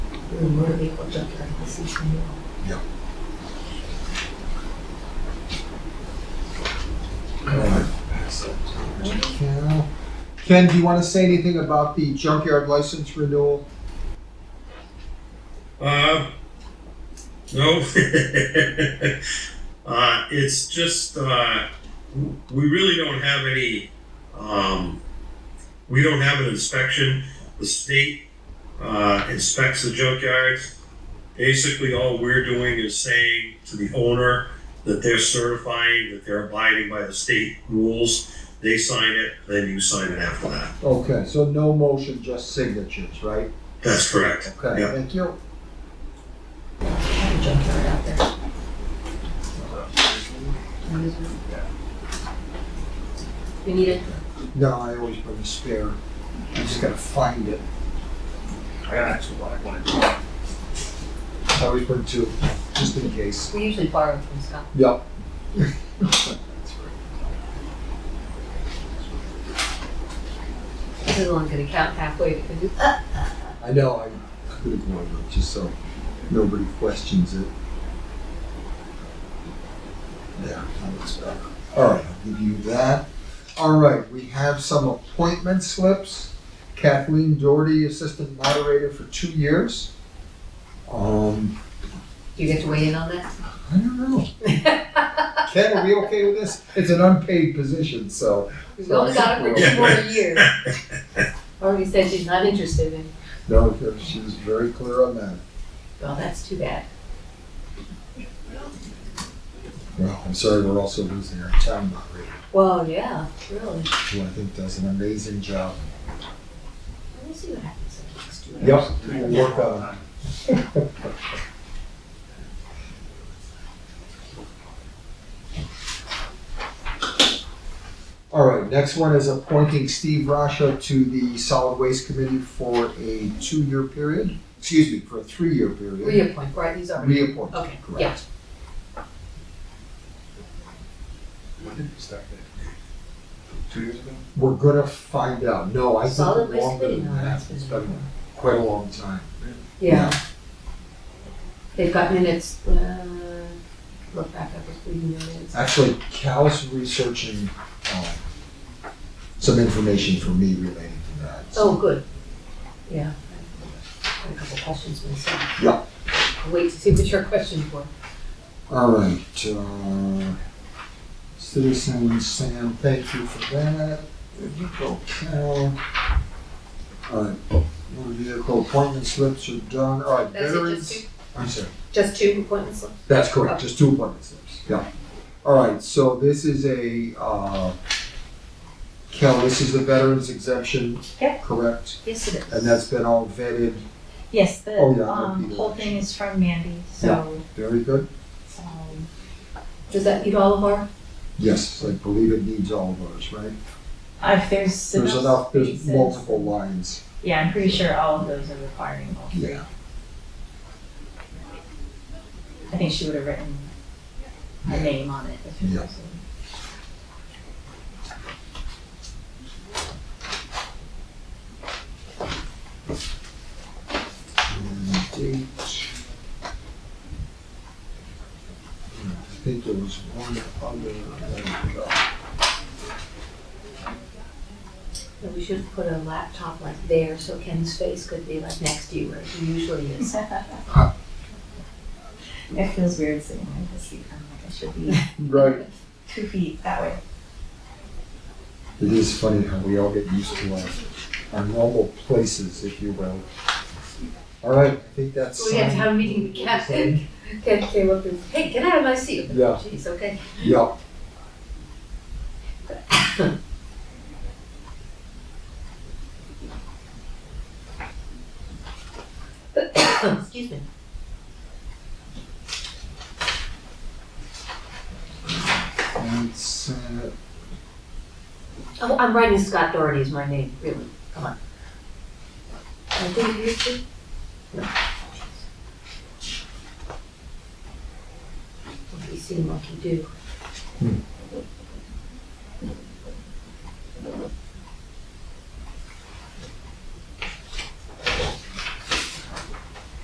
Nueve, ocho, tres, dieciséis, nueve. Yeah. Ken, do you want to say anything about the junkyard license renewal? Uh, no. uh, it's just uh, we really don't have any. Um, we don't have an inspection. The state uh, inspects the junkyards. Basically, all we're doing is saying to the owner that they're certifying that they're abiding by the state rules. They sign it, then you sign it after that. Okay, so no motion, just signatures, right? That's correct. Okay, Yeah. thank you. Had a junkyard out there. You need it? No, I always bring a spare. I just gotta find it. I got an extra black one. I always bring two, just in case. We usually borrow from Scott. Yep. This is only gonna count halfway because you, uh, I know, I could ignore them, just so nobody questions it. There, that looks better. All right, I'll give you that. All right, we have some appointment slips. Kathleen Doherty, Assistant Moderator for two years. Um, do you get to weigh in on that? I don't know. Ken, are we okay with this? It's an unpaid position, so, We've only got her for two more years. Already said she's not interested in, no, she was very clear on that. well, that's too bad. Well, I'm sorry, we're also losing our town moderator. Well, yeah, really. who I think does an amazing job. We'll see what happens in the next two years. Yep, we'll work on All right, next one is appointing Steve Rasha to the Solid Waste Committee for a two-year period, excuse me, for a three-year period. Reappoint, right, he's already. Reappoint, Okay, yeah. correct. When did you start that? Two years ago? We're gonna find out. No, I Solid think Waste longer than Committee, no, that. that's It's been- been quite a long time. Yeah. They've got minutes, uh, look back up if we need minutes. Actually, Cal's researching um, some information for me relating to that. Oh, good. Yeah. I had a couple questions myself. Yeah. I'll Wait to see what your question for. All right. Uh, Citizen Sam, thank you for that. There you go, Cal. All right. Motor vehicle appointment slips are done. All right, That's it, just veterans. two, I'm sorry. just two appointments left? That's correct, just two appointment slips, yeah. All right, so this is a, uh, Cal, this is the veterans exemption. Yep. Correct? Yes, it is. And that's been all vetted. Yes, the, Oh, yeah, I um, repeated whole it. thing is from Mandy, so, Very good. um, Does that meet all of our? Yes, I believe it needs all of those, right? if there's There's enough, there's spaces- multiple lines. Yeah, I'm pretty sure all of those are requiring all three. Yeah. I think she would have written her name on it if it Yeah. was. And date. And I think there was one other, there we go. that We should put a laptop like there so Ken's face could be like next to you where he usually is. It feels weird sitting like this, I'm like, I should be Right. two feet that way. It is funny how we all get used to our, our normal places, if you will. All right, I think that's. So we had to have a meeting with Ken. Ken came up and, hey, get out of my seat. Yeah. Jeez, okay. Yeah. Excuse me. That's, uh, Oh, I'm writing Scott Doherty is my name, really, come on. I think you should. What do you see, monkey do? Hmm.